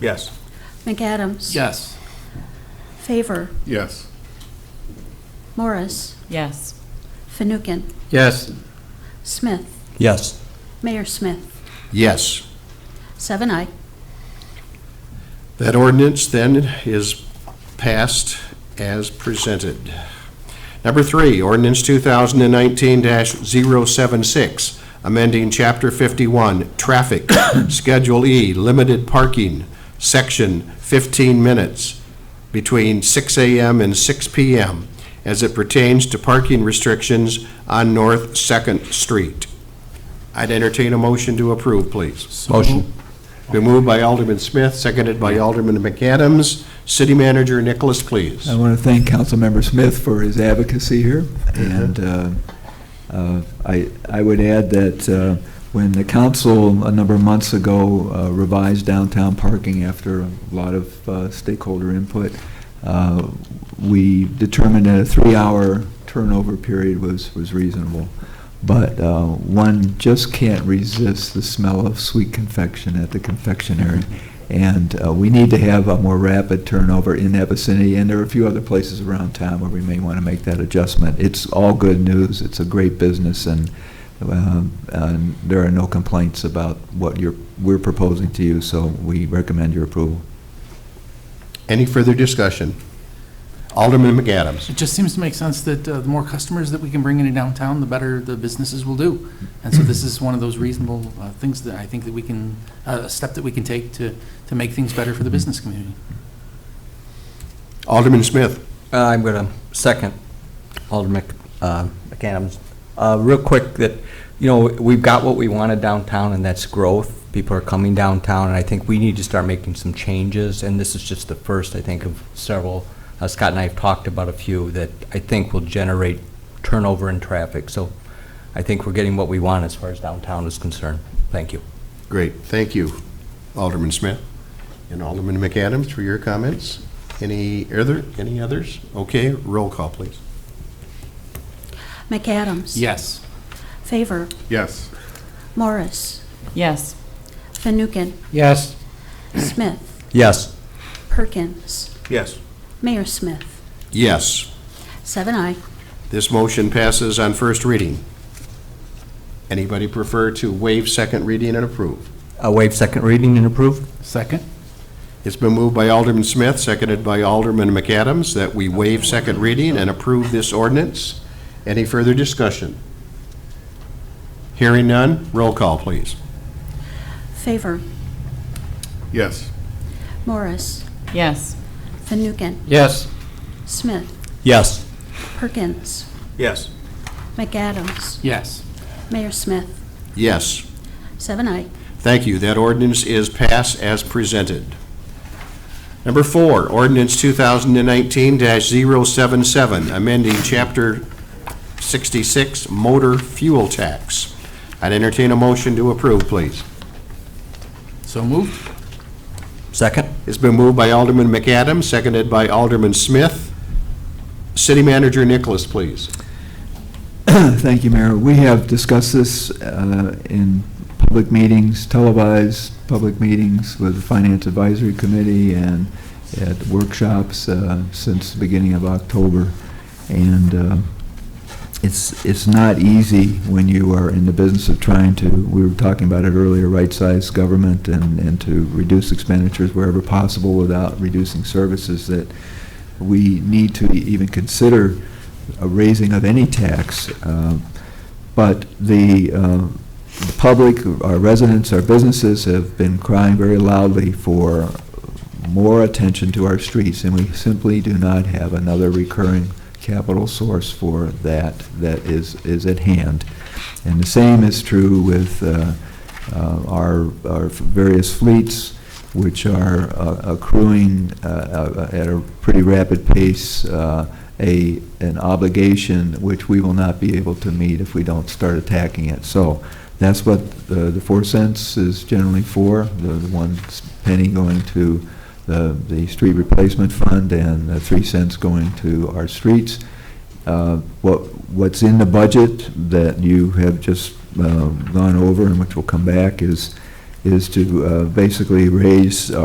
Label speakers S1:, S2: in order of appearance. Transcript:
S1: Yes.
S2: McAdams.
S3: Yes.
S2: Favor.
S4: Yes.
S2: Morris.
S5: Yes.
S2: Fanouken.
S3: Yes.
S2: Smith.
S1: Yes.
S2: Mayor Smith.
S4: Yes.
S2: Seven I.
S4: That ordinance then is passed as presented. Number three, ordinance 2019-076, amending Chapter 51, Traffic, Schedule E, Limited Parking, Section 15 minutes between 6 a.m. and 6 p.m. as it pertains to parking restrictions on North Second Street. I'd entertain a motion to approve, please.
S1: Motion.
S4: Been moved by Alderman Smith, seconded by Alderman McAdams. City Manager Nicholas, please.
S6: I want to thank Councilmember Smith for his advocacy here, and uh, uh, I I would add that uh, when the council, a number of months ago, uh, revised downtown parking after a lot of uh, stakeholder input, uh, we determined that a three-hour turnover period was was reasonable, but uh, one just can't resist the smell of sweet confection at the confectionery. And uh, we need to have a more rapid turnover in that vicinity, and there are a few other places around town where we may want to make that adjustment. It's all good news, it's a great business, and, um, and there are no complaints about what you're, we're proposing to you, so we recommend your approval.
S4: Any further discussion? Alderman McAdams.
S3: It just seems to make sense that uh, the more customers that we can bring into downtown, the better the businesses will do. And so this is one of those reasonable uh, things that I think that we can, uh, a step that we can take to, to make things better for the business community.
S4: Alderman Smith.
S1: Uh, I'm going to second Alderman Mc- uh, McAdams. Uh, Real quick, that, you know, we've got what we wanted downtown, and that's growth. People are coming downtown, and I think we need to start making some changes, and this is just the first, I think, of several. Uh, Scott and I have talked about a few that I think will generate turnover in traffic. So I think we're getting what we want as far as downtown is concerned. Thank you.
S4: Great, thank you, Alderman Smith. And Alderman McAdams for your comments. Any other, any others? Okay, roll call, please.
S2: McAdams.
S3: Yes.
S2: Favor.
S4: Yes.
S2: Morris.
S5: Yes.
S2: Fanouken.
S1: Yes.
S2: Smith.
S1: Yes.
S2: Perkins.
S1: Yes.
S2: Mayor Smith.
S4: Yes.
S2: Seven I.
S4: This motion passes on first reading. Anybody prefer to waive second reading and approve?
S1: Waive second reading and approve?
S3: Second?
S4: It's been moved by Alderman Smith, seconded by Alderman McAdams, that we waive second reading and approve this ordinance. Any further discussion? Hearing none, roll call, please.
S2: Favor.
S4: Yes.
S2: Morris.
S5: Yes.
S2: Fanouken.
S1: Yes.
S2: Smith.
S1: Yes.
S2: Perkins.
S1: Yes.
S2: McAdams.
S3: Yes.
S2: Mayor Smith.
S4: Yes.
S2: Seven I.
S4: Thank you. That ordinance is passed as presented. Number four, ordinance 2019-077, amending Chapter 66 Motor Fuel Tax. I'd entertain a motion to approve, please.
S3: So moved?
S1: Second?
S4: It's been moved by Alderman McAdams, seconded by Alderman Smith. City Manager Nicholas, please.
S6: Thank you, Mayor. We have discussed this uh, in public meetings, televised public meetings with the Finance Advisory Committee and at workshops uh, since the beginning of October. And uh, it's, it's not easy when you are in the business of trying to, we were talking about it earlier, right-size government and, and to reduce expenditures wherever possible without reducing services, that we need to even consider a raising of any tax. uh, But the uh, the public, our residents, our businesses have been crying very loudly for more attention to our streets, and we simply do not have another recurring capital source for that that is, is at hand. And the same is true with uh, uh, our, our various fleets, which are uh, accruing uh, uh, at a pretty rapid pace, uh, a, an obligation which we will not be able to meet if we don't start attacking it. So that's what uh, the the four cents is generally for, the the one penny going to the, the street replacement fund and the three cents going to our streets. Uh, What, what's in the budget that you have just uh, gone over and which will come back is, is to uh, basically raise